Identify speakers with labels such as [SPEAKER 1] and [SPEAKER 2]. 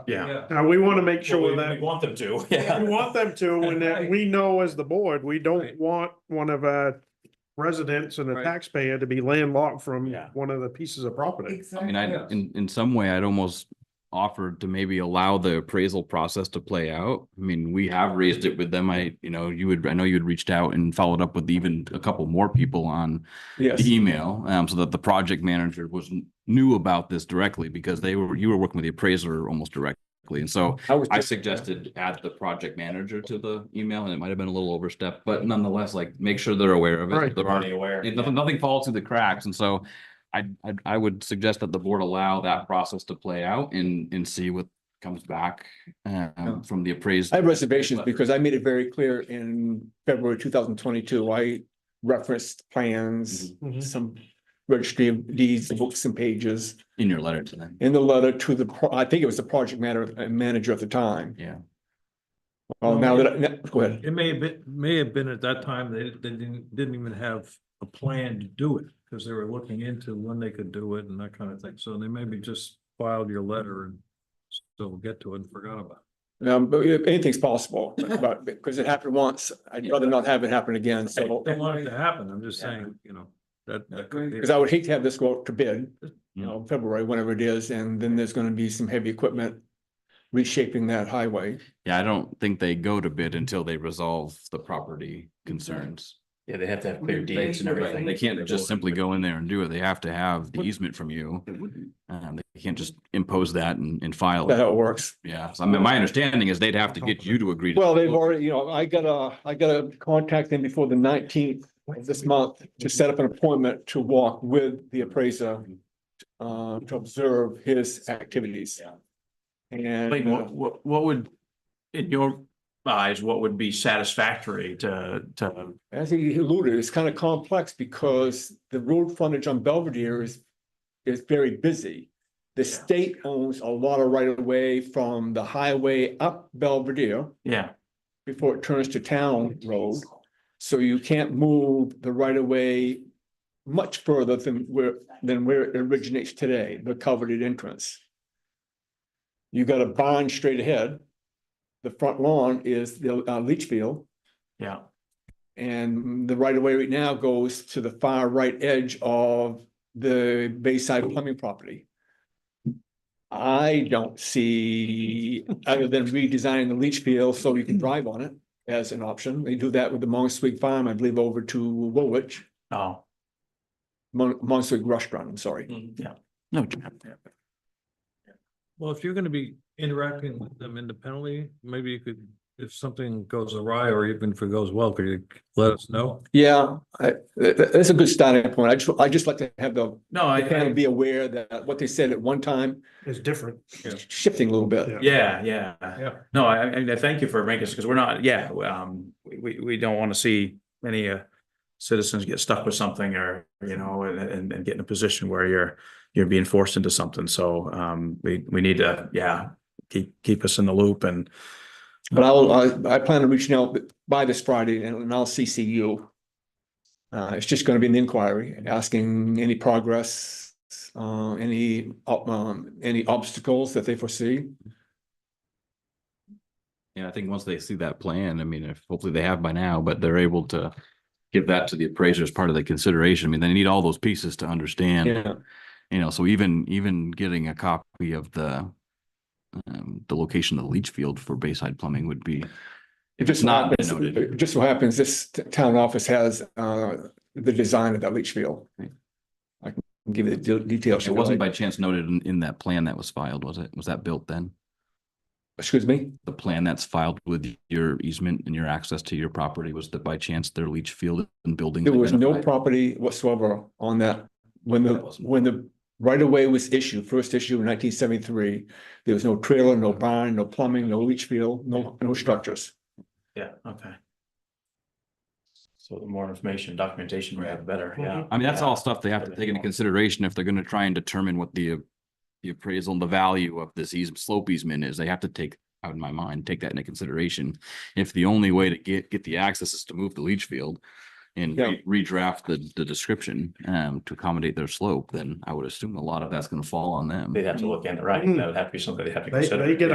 [SPEAKER 1] Yeah,
[SPEAKER 2] Yeah.
[SPEAKER 1] now we wanna make
[SPEAKER 3] Well,
[SPEAKER 1] sure
[SPEAKER 3] we-
[SPEAKER 1] that,
[SPEAKER 3] We want them to,
[SPEAKER 1] we
[SPEAKER 3] yeah.
[SPEAKER 1] want them to, and that
[SPEAKER 2] Right.
[SPEAKER 1] we know as the board, we don't
[SPEAKER 2] Right.
[SPEAKER 1] want one of our residents and a
[SPEAKER 2] Right.
[SPEAKER 1] taxpayer to be landlocked from
[SPEAKER 3] Yeah.
[SPEAKER 1] one of the pieces of property.
[SPEAKER 4] I
[SPEAKER 2] Exactly.
[SPEAKER 4] mean, I, in, in some way, I'd almost offered to maybe allow the appraisal process to play out. I mean, we have raised it with them. I, you know, you would, I know you had reached out and followed up with even a couple more people on
[SPEAKER 3] Yes.
[SPEAKER 4] the email, um, so that the project manager was, knew about this directly because they were, you were working with the appraiser almost directly. And so
[SPEAKER 3] was
[SPEAKER 4] I
[SPEAKER 3] just-
[SPEAKER 4] suggested add the project manager to the email and it might have been a little overstep, but nonetheless, like, make sure they're aware of it.
[SPEAKER 1] Right.
[SPEAKER 4] They're already
[SPEAKER 3] Already aware.
[SPEAKER 4] it- nothing, nothing falls through the cracks, and so I, I, I would suggest that the board allow that process to play out and, and see what comes back um, from the appraised.
[SPEAKER 3] I have reservations because I made it very clear in February two thousand twenty-two, I referenced plans,
[SPEAKER 5] Mm-hmm.
[SPEAKER 4] Mm-hmm.
[SPEAKER 3] some registry of deeds, books and pages
[SPEAKER 4] In your letter to them,
[SPEAKER 3] in the letter to the, pro- I think it was the project matter, uh, manager at the time.
[SPEAKER 4] yeah. Oh,
[SPEAKER 3] Well, now that, I- now- go ahead.
[SPEAKER 2] It may have been, may have been at that time, they, they didn't, didn't even have a plan to do it, because they were looking into when they could do it and that kind of thing, so they maybe just filed your letter and still get to it and forgot about it.
[SPEAKER 3] Um, but yeah, anything's possible, but because it happened once, I'd rather not have it happen again, so.
[SPEAKER 2] Don't want it to happen, I'm just saying, you know, that, that could be.
[SPEAKER 3] Because I would hate to have this go out to bid, you know, February, whenever it is, and then there's gonna be some heavy equipment reshaping that highway.
[SPEAKER 4] Yeah, I don't think they go to bid until they resolve the property concerns.
[SPEAKER 5] Yeah, they have to have
[SPEAKER 4] Right, They can't just simply go in there and do it, they have to have the easement from you, um, they can't just impose that and, and file
[SPEAKER 3] That's
[SPEAKER 4] it,
[SPEAKER 3] how it works.
[SPEAKER 4] Oh, yeah, so I mean, my understanding is they'd have to get you to agree. to-
[SPEAKER 3] Well, they've already, you know, I gotta, I gotta contact them before the nineteenth of this month to set up an appointment to walk with the appraiser. Uh, to observe his activities.
[SPEAKER 5] Like,
[SPEAKER 3] And uh,
[SPEAKER 5] what, what, what would, in your eyes, what would be satisfactory to, to?
[SPEAKER 3] as he alluded, it's kind of complex because the road frontage on Belvedere is, is very busy. The state owns a lot of right of way from the highway up Belvedere.
[SPEAKER 5] Yeah,
[SPEAKER 3] before it turns to town road. So you can't move the right of way much further than where, than where it originates today, the coveted entrance. You got a barn straight ahead. The front lawn is the uh, leach field
[SPEAKER 5] yeah,
[SPEAKER 3] and the right of way right now goes to the far right edge of the Bayside plumbing property. I don't see, other than redesigning the leach field so you can drive on it as an option. They do that with the Mongswig Farm, I believe, over to Woolwich,
[SPEAKER 5] oh,
[SPEAKER 3] Mon- Mongswig Restaurant, I'm sorry.
[SPEAKER 5] yeah, no.
[SPEAKER 2] Well, if you're gonna be interacting with them independently, maybe you could, if something goes awry or even if it goes well, could you let us know?
[SPEAKER 3] Yeah, I- th- th- that's a good starting point. I just, I just like to have the,
[SPEAKER 5] No, I,
[SPEAKER 3] kind of
[SPEAKER 5] I-
[SPEAKER 3] be aware that what they said at one time
[SPEAKER 1] It's different.
[SPEAKER 3] is shifting a little bit.
[SPEAKER 5] yeah, yeah.
[SPEAKER 2] Yeah.
[SPEAKER 5] No, I, I mean, I thank you for making us, because we're not, yeah, um, we- we, we don't want to see any uh. Citizens get stuck with something or, you know, and, and, and get in a position where you're, you're being forced into something, so, um, we, we need to, yeah. Keep, keep us in the loop and,
[SPEAKER 3] But I'll, I, I plan on reaching out by this Friday and and I'll CC you. Uh, it's just gonna be an inquiry, asking any progress, uh, any, ob- um, any obstacles that they foresee.
[SPEAKER 4] And I think once they see that plan, I mean, if hopefully they have by now, but they're able to give that to the appraiser as part of the consideration. I mean, they need all those pieces to understand,
[SPEAKER 3] Yeah,
[SPEAKER 4] you know, so even, even getting a copy of the um, the location of the leach field for Bayside Plumbing would be,
[SPEAKER 3] it
[SPEAKER 4] if
[SPEAKER 3] just
[SPEAKER 4] it's
[SPEAKER 3] so
[SPEAKER 4] not been
[SPEAKER 3] happens,
[SPEAKER 4] noted.
[SPEAKER 3] it just so happens this t- town office has, uh, the design of that leach field.
[SPEAKER 4] Right.
[SPEAKER 3] I can give you the de- details.
[SPEAKER 4] It wasn't by chance noted in, in that plan that was filed, was it? Was that built then?
[SPEAKER 3] Excuse me?
[SPEAKER 4] The plan that's filed with your easement and your access to your property, was that by chance their leach field and building?
[SPEAKER 3] There was no property whatsoever on that. When the,
[SPEAKER 4] That wasn't-
[SPEAKER 3] when the right of way was issued, first issue in nineteen seventy-three, there was no trailer, no barn, no plumbing, no leach field, no, no structures.
[SPEAKER 5] yeah, okay. So the more information, documentation we have, the better, yeah.
[SPEAKER 4] I mean, that's
[SPEAKER 5] Yeah.
[SPEAKER 4] all stuff they have to take into consideration if they're gonna try and determine what the. uh, The appraisal and the value of this easement, slope easement is, they have to take, out in my mind, take that into consideration. If the only way to get, get the access is to move the leach field. And
[SPEAKER 3] Yeah.
[SPEAKER 4] re- redraft the, the description, um, to accommodate their slope, then I would assume a lot of that's gonna fall on them.
[SPEAKER 5] They'd have to look into, right, that would have to be something they'd have to
[SPEAKER 1] They,
[SPEAKER 5] consider.
[SPEAKER 1] they get